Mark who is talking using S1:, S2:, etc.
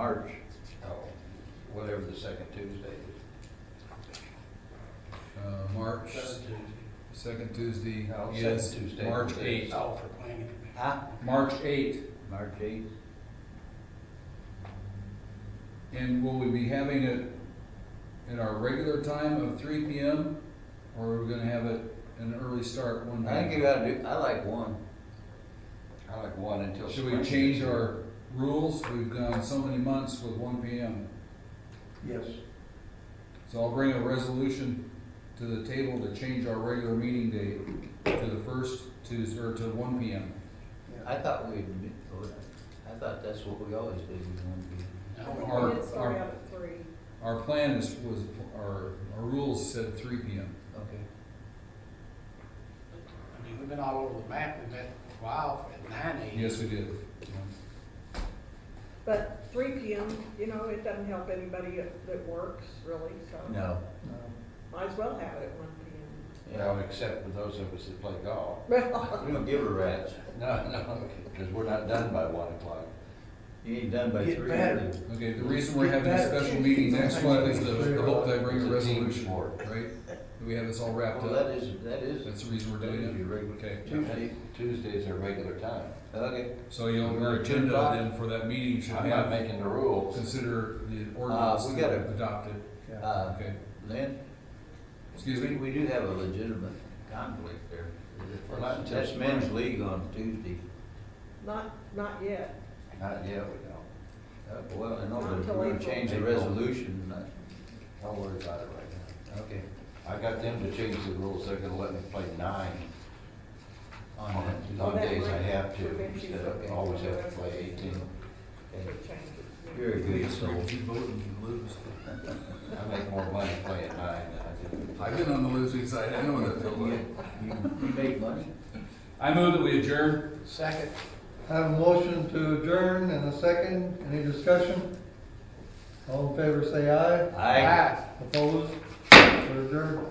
S1: March, oh, whatever the second Tuesday is.
S2: Uh, March, second Tuesday
S1: No, second
S2: is
S1: Tuesday
S2: March
S1: is-
S2: eighth.
S3: Oh, for planning commission.
S1: Huh?
S2: March eighth,
S1: March eighth?
S2: and will we be having it at our regular time of three P M? Or are we gonna have it an early start one
S1: I think you
S2: day?
S1: gotta do, I like one. I like one until.
S2: Should we
S1: spring
S2: change
S1: gets here.
S2: our rules? We've gone so many months with one P M.
S4: Yes.
S2: So I'll bring a resolution to the table to change our regular meeting date to the first Tuesday, or to one P M.
S1: I thought we'd, I thought that's what we always do, we want to be.
S3: No,
S2: Our-
S5: We did start
S2: our-
S5: out at three.
S2: Our plan is, was, our, our rules said three P M.
S1: Okay.
S3: I mean, we've been all over the map, we met for a while at nine AM.
S2: Yes, we did.
S5: But three P M, you know, it doesn't help anybody that that works really, so
S1: No,
S5: might as well have it at one P
S1: well, except for those of us that play golf.
S5: M.
S4: We don't give a rat's.
S1: No, no, because we're not done by one o'clock.
S4: You ain't done by
S6: Get
S4: three.
S6: better.
S2: Okay, the reason we're having a
S6: Get better.
S2: special meeting next month is the, the hope that I bring
S1: It's
S2: a
S1: a team
S2: resolution,
S1: sport.
S2: right? That We have this all wrapped
S1: Well, that
S2: up.
S1: is, that is,
S2: That's the reason we're
S1: that is your
S2: doing
S1: regular.
S2: it. Okay,
S1: Tuesday, Tuesday's our regular time.
S4: Okay.
S2: so you'll,
S1: We're
S2: your
S1: at ten o'clock.
S2: agenda then for that meeting should
S1: I'm not
S2: have,
S1: making the rules. Uh,
S2: consider the ordinance
S4: we gotta-
S2: adopted.
S4: Uh,
S2: Okay,
S4: Lynn,
S2: excuse
S4: we,
S2: me?
S4: we do have a legitimate conflict there.
S1: We're not until
S4: That's
S1: spring.
S4: men's league on Tuesday.
S5: Not, not yet.
S1: Not yet, we don't.
S4: Uh, Well, I know,
S5: Not
S4: but if
S5: till
S4: we're gonna
S5: April.
S4: change the
S1: April.
S4: resolution, uh,
S1: Don't worry about it right
S4: okay.
S1: now. I got them to change the rules. They're gonna let me play nine
S4: On
S1: on
S4: that.
S1: on
S5: That
S1: days I
S5: might
S1: have to
S5: prevent you
S1: instead of
S5: from-
S1: always have to play eighteen.
S5: It
S4: Okay.
S5: changes.
S4: You're a good soul.
S1: I make more money playing nine than I
S2: I've
S1: do.
S2: been on the losing side, I know what that feels
S4: You,
S2: like.
S4: you you make money?
S2: I move that we adjourn.
S3: Second,
S6: Have a motion to adjourn and a second. Any discussion? All in favor, say aye.
S4: Aye.
S3: aye.
S6: Opposed? We're adjourned.